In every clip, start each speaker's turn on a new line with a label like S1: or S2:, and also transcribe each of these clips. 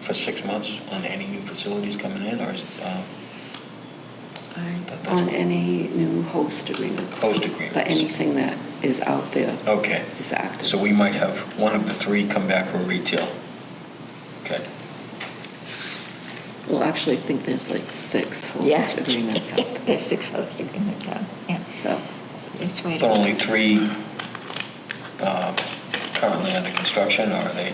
S1: for six months on any new facilities coming in, or is, uh, That- that's-
S2: On any new host agreements.
S1: Host agreements.
S2: But anything that is out there
S1: okay.
S2: is active.
S1: So we might have one of the three come back for retail. Okay.
S2: Well, actually, I think there's like six
S3: Yeah.
S2: host agreements out there.
S3: There's six host agreements out, yes.
S2: So,
S3: That's right.
S1: But only three um, currently under construction, or are they,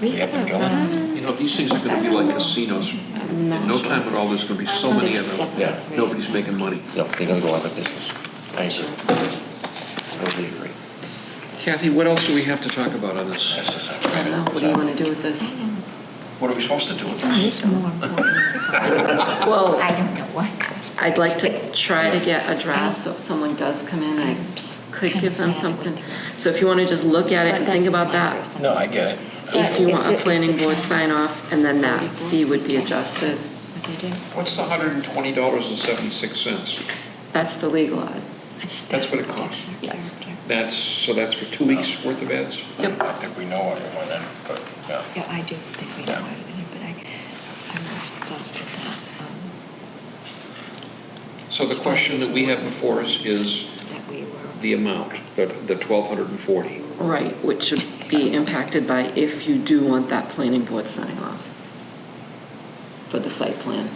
S3: We
S1: they up and
S3: have,
S1: going?
S3: um,
S4: You know, these things are gonna be like casinos. In
S2: Not
S4: no
S2: sure.
S4: time at all, there's gonna be so
S3: Oh,
S4: many
S3: there's
S4: of them.
S3: definitely Yeah. three.
S4: Nobody's making money.
S5: No, they're gonna go out of business. I agree. Totally agree.
S4: Kathy, what else do we have to talk about on this?
S1: That's just
S2: I don't know,
S1: like-
S2: what do you want to do with this?
S1: What are we supposed to do with
S3: Oh,
S1: this?
S3: It's more important than some.
S2: Well,
S3: I don't know what.
S2: I'd like to try to get a draft, so if someone does come in, I could give them something. So if you want to just look at it and think about that,
S1: No, I get it.
S2: if you want a planning board sign off, and then that fee would be adjusted.
S3: That's what they do.
S4: What's the hundred and twenty dollars and seventy-six cents?
S2: That's the legal ad.
S4: That's what it costs.
S2: Yes.
S4: That's, so that's for two weeks'
S5: Uh.
S4: worth of ads?
S2: Yep.
S1: I think we know everyone then, but, yeah.
S3: Yeah, I do think we know
S1: Yeah.
S3: what it is, but I, I'm not stuck with that, um,
S4: So the question that we have before us is
S3: that we were.
S4: the amount, the, the twelve hundred and forty.
S2: Right, which should be impacted by if you do want that planning board sign off for the site plan.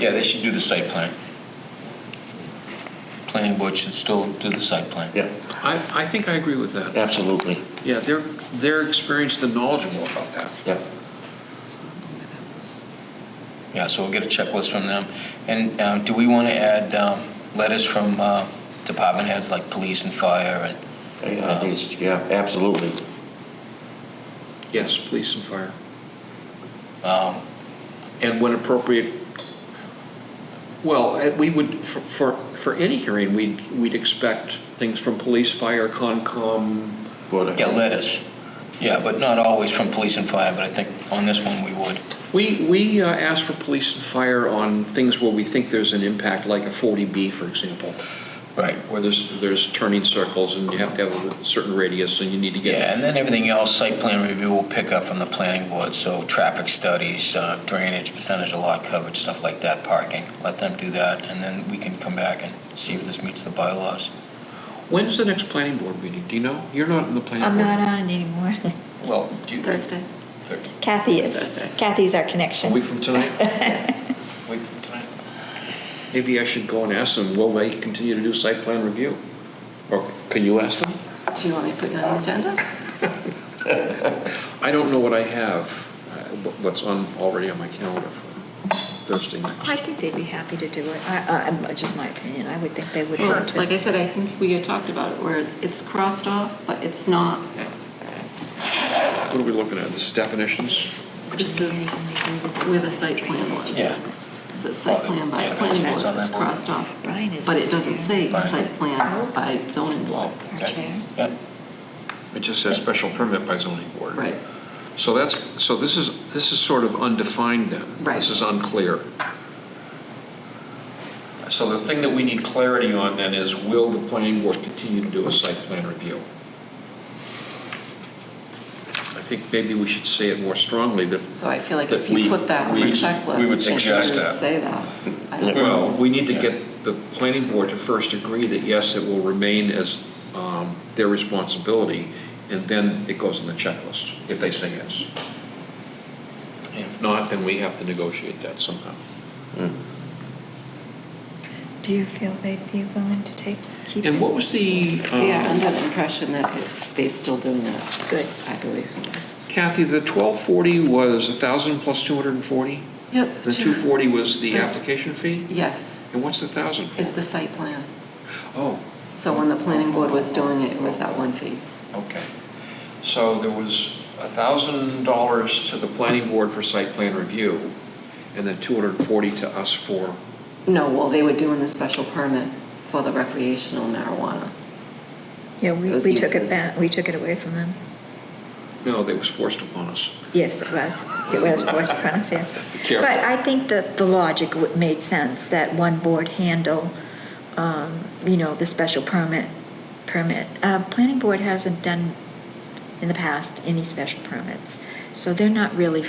S1: Yeah, they should do the site plan. Planning board should still do the site plan.
S5: Yeah,
S4: I, I think I agree with that.
S5: absolutely.
S4: Yeah, they're, they're experienced and knowledgeable about that.
S5: Yeah.
S1: Yeah, so we'll get a checklist from them. And um, do we want to add um, letters from uh, department heads like police and fire
S5: I I think it's, yeah, absolutely.
S4: Yes, police and fire.
S1: and, um,
S4: And when appropriate, well, eh, we would, for, for, for any hearing, we'd, we'd expect things from police, fire, Concom.
S5: Board of
S1: yeah,
S5: Health.
S1: letters. Yeah, but not always from police and fire, but I think on this one we would.
S4: We, we uh, ask for police and fire on things where we think there's an impact, like a 40B, for example,
S1: Right.
S4: where there's, there's turning circles and you have to have a certain radius and you need to get.
S1: Yeah, and then everything else, site plan review will pick up from the planning board, so traffic studies, uh, drainage, percentage of lot coverage, stuff like that, parking. Let them do that, and then we can come back and see if this meets the bylaws.
S4: When's the next planning board meeting? Do you know? You're not in the planning
S3: I'm
S4: board.
S3: not on it anymore.
S1: Well, do you...
S2: Thursday?
S3: Kathy
S2: That's
S3: is,
S2: right.
S3: Kathy's our
S4: A
S3: connection.
S4: week from tonight?
S1: Wait for tonight.
S4: Maybe I should go and ask them, will they continue to do site plan review? Or can you ask them?
S2: Do you want me to put you on the agenda?
S4: I don't know what I have, uh, wh- what's on, already on my calendar for Thursday
S3: I
S4: next.
S3: think they'd be happy to do it. I, I, just my opinion, I would think they would
S2: Well,
S3: want to.
S2: like I said, I think we had talked about it, where it's, it's crossed off, but it's not,
S4: What are we looking at, this is definitions?
S2: this is where the site plan was.
S1: Yeah.
S2: This is site plan by
S1: Yeah,
S2: planning board,
S1: that's on
S2: it's
S1: that board.
S2: crossed off,
S3: Brian is.
S2: but it doesn't say
S1: Fine.
S2: site plan by zoning board,
S3: Our chair.
S1: Yeah,
S4: It just says special permit by zoning board.
S2: right?
S4: So that's, so this is, this is sort of undefined then.
S2: Right.
S4: This is unclear. So the thing that we need clarity on then is, will the planning board continue to do a site plan review? I think maybe we should say it more strongly, that
S2: So I feel like
S4: That
S2: if
S4: we-
S2: you put that on the
S4: we-
S2: checklist.
S1: we would
S2: it
S1: suggest
S2: should
S1: that.
S2: Say that. I don't know.
S4: Well, we need to get the planning board to first agree that yes, it will remain as um, their responsibility, and then it goes on the checklist, if they say yes. If not, then we have to negotiate that somehow.
S5: Mm.
S3: Do you feel they'd be willing to take, keep
S4: And what was the, um,
S2: We are under the impression that it- they're still doing that.
S3: Good.
S2: I believe.
S4: Kathy, the 1240 was 1,000 plus 240?
S2: Yep.
S4: The 240 was the
S2: This-
S4: application fee?
S2: Yes,
S4: And what's the 1,000
S2: is
S4: for?
S2: the site plan.
S4: Oh,
S2: So when the planning board was doing it, it was that one fee.
S4: okay. So there was $1,000 to the planning board for site plan review, and then 240 to us for
S2: No, well, they were doing the special permit for the recreational marijuana.
S3: Yeah, we,
S2: Those
S3: we took
S2: uses.
S3: it back, we took it away from them.
S4: No, that was forced upon us.
S3: Yes, it was. It was forced upon us, yes.
S4: Careful.
S3: But I think that the logic w- made sense, that one board handle, um, you know, the special permit, permit. Uh, Planning board hasn't done in the past any special permits, so they're not really